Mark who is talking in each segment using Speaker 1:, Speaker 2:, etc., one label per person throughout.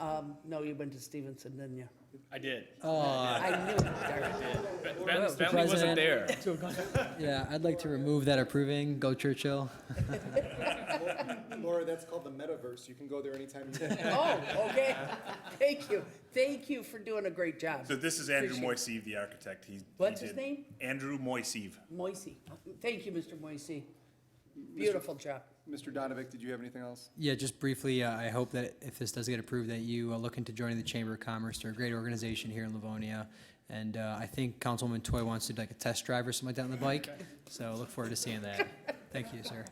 Speaker 1: Um, no, you went to Stevenson, didn't you?
Speaker 2: I did.
Speaker 3: Oh,
Speaker 1: I knew it, Derek.
Speaker 2: Ben,
Speaker 1: Mr.
Speaker 2: Bentley wasn't
Speaker 3: President.
Speaker 2: there.
Speaker 3: Yeah, I'd like to remove that approving. Go Churchill.
Speaker 4: Laura, that's called the metaverse. You can go there anytime you want.
Speaker 1: Oh, okay. Thank you. Thank you for doing a great job.
Speaker 5: So this is Andrew
Speaker 1: Appreciate
Speaker 5: Moiseev, the architect. He- he
Speaker 1: What's his
Speaker 5: did-
Speaker 1: name?
Speaker 5: Andrew Moiseev.
Speaker 1: Moisey. Thank you, Mr. Moisey. Beautiful job.
Speaker 4: Mr. Donovic, did you have anything else?
Speaker 3: Yeah, just briefly, uh, I hope that if this does get approved, that you uh, look into joining the Chamber of Commerce. They're a great organization here in Livonia. And uh, I think Councilwoman Toy wants to do like a test drive or something like that on the bike. So I look forward to seeing that. Thank you, sir.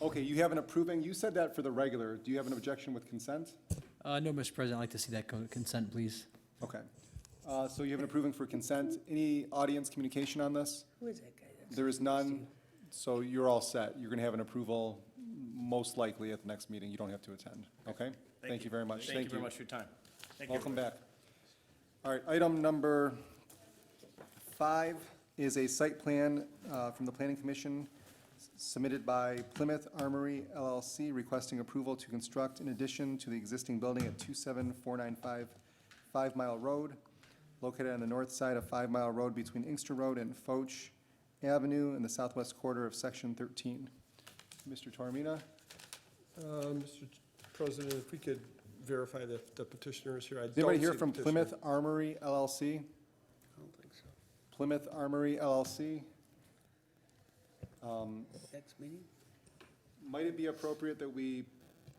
Speaker 4: Okay, you have an approving, you said that for the regular. Do you have an objection with consent?
Speaker 3: Uh, No, Mr. President, I'd like to see that go to consent, please.
Speaker 4: Okay. Uh, So you have an approving for consent. Any audience communication on this?
Speaker 1: Who is that guy?
Speaker 4: There is none, so you're all set. You're going to have an approval most likely at the next meeting. You don't have to attend, okay? Thank you very much.
Speaker 2: Thank you very much for your time.
Speaker 5: Thank you.
Speaker 4: Welcome back. All right, item number five is a site plan uh, from the Planning Commission submitted by Plymouth Armory LLC requesting approval to construct in addition to the existing building at 27495 Five Mile Road, located on the north side of Five Mile Road between Inkster Road and Foch Avenue in the southwest quarter of Section 13. Mr. Tormina?
Speaker 6: Uh, Mr. President, if we could verify that the petitioner is here. I
Speaker 4: Is anybody
Speaker 6: don't
Speaker 4: here
Speaker 6: see
Speaker 4: from
Speaker 6: the
Speaker 4: Plymouth
Speaker 6: petitioner.
Speaker 4: Armory LLC?
Speaker 1: I don't think so.
Speaker 4: Plymouth Armory LLC. Um,
Speaker 1: Next meeting?
Speaker 4: Might it be appropriate that we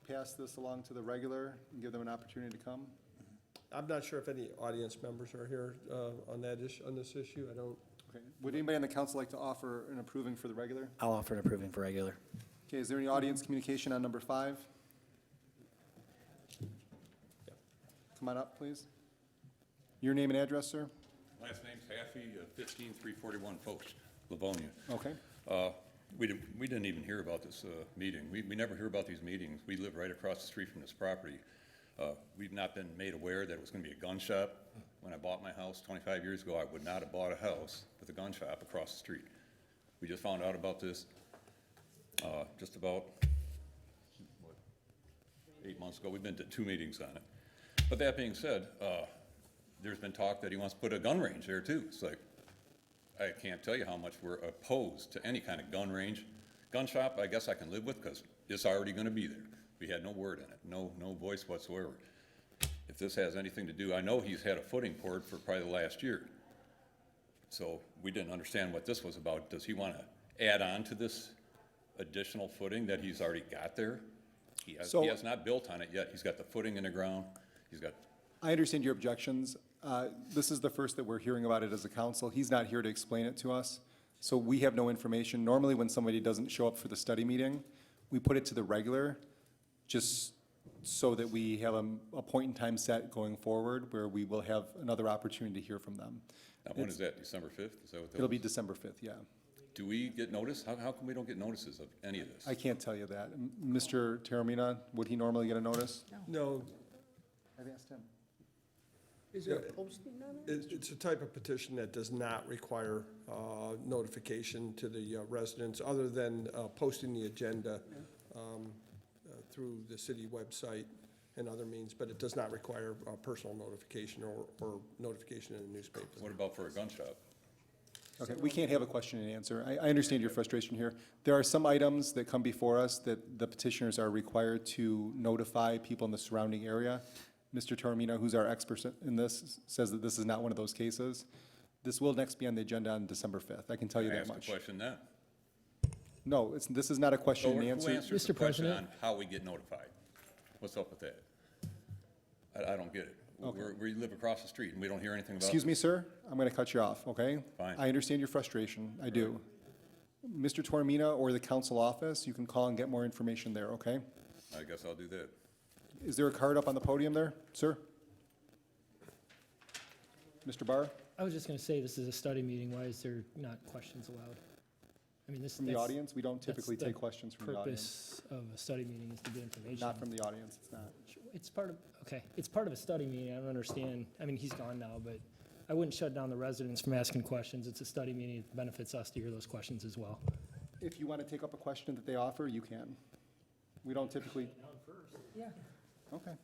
Speaker 4: pass this along to the regular and give them an opportunity to come?
Speaker 6: I'm not sure if any audience members are here uh, on that issue, on this issue. I don't,
Speaker 4: Okay. Would anybody on the council like to offer an approving for the regular?
Speaker 7: I'll offer an approving for regular.
Speaker 4: Okay, is there any audience communication on number five? Come on up, please. Your name and address, sir?
Speaker 8: Last name's Haffey, fifteen three forty-one Post, Livonia.
Speaker 4: Okay.
Speaker 8: Uh, We didn't, we didn't even hear about this uh, meeting. We, we never hear about these meetings. We live right across the street from this property. Uh, We've not been made aware that it was gonna be a gun shop. When I bought my house twenty-five years ago, I would not have bought a house with a gun shop across the street. We just found out about this, uh, just about, what, eight months ago. We've been to two meetings on it. But that being said, uh, there's been talk that he wants to put a gun range there too. It's like, I can't tell you how much we're opposed to any kind of gun range. Gun shop, I guess I can live with because it's already going to be there. We had no word in it, no, no voice whatsoever. If this has anything to do, I know he's had a footing poured for probably the last year. So we didn't understand what this was about. Does he want to add on to this additional footing that he's already got there? He has,
Speaker 4: So-
Speaker 8: he has not built on it yet. He's got the footing in the ground. He's got
Speaker 4: I understand your objections. Uh, This is the first that we're hearing about it as a council. He's not here to explain it to us, so we have no information. Normally, when somebody doesn't show up for the study meeting, we put it to the regular, just so that we have a, a point in time set going forward where we will have another opportunity to hear from them.
Speaker 8: Now, when is that, December 5th? Is that what that
Speaker 4: It'll be
Speaker 8: was?
Speaker 4: December 5th, yeah.
Speaker 8: Do we get notice? How, how come we don't get notices of any of this?
Speaker 4: I can't tell you that. M- Mr. Terramina, would he normally get a notice?
Speaker 6: no,
Speaker 4: I've asked him.
Speaker 1: Is there a posting on it?
Speaker 6: it's, it's a type of petition that does not require uh, notification to the uh, residents, other than uh, posting the agenda um, uh, through the city website and other means, but it does not require uh, personal notification or, or notification in the newspaper.
Speaker 8: What about for a gun shop?
Speaker 4: Okay, we can't have a question and answer. I, I understand your frustration here. There are some items that come before us that the petitioners are required to notify people in the surrounding area. Mr. Toromino, who's our expert in this, says that this is not one of those cases. This will next be on the agenda on December 5th. I can tell you
Speaker 8: I
Speaker 4: that
Speaker 8: asked a
Speaker 4: much.
Speaker 8: question then.
Speaker 4: No, it's, this is not a
Speaker 8: So
Speaker 4: question and
Speaker 8: who
Speaker 4: answer.
Speaker 8: answers the
Speaker 3: Mr.
Speaker 8: question on
Speaker 3: President?
Speaker 8: how we get notified? What's up with that? I, I don't get it. We're, we live across the street and we don't hear anything about.
Speaker 4: Excuse me, sir, I'm going to cut you off, okay?
Speaker 8: Fine.
Speaker 4: I understand your frustration, I do. Mr. Toromino or the council office, you can call and get more information there, okay?
Speaker 8: I guess I'll do that.
Speaker 4: Is there a card up on the podium there, sir? Mr. Barr,
Speaker 9: I was just going to say, this is a study meeting, why is there not questions allowed? I mean, this.
Speaker 4: from the
Speaker 9: that's-
Speaker 4: audience, we don't
Speaker 9: that's
Speaker 4: typically
Speaker 9: the
Speaker 4: take questions from the audience.
Speaker 9: Purpose of a study meeting is to get information.
Speaker 4: Not from the audience, it's not.
Speaker 9: It's part of, okay, it's part of a study meeting, I don't understand, I mean, he's gone now, but I wouldn't shut down the residents from asking questions. It's a study meeting, it benefits us to hear those questions as well.
Speaker 4: If you want to take up a question that they offer, you can. We don't typically. Yeah. Okay,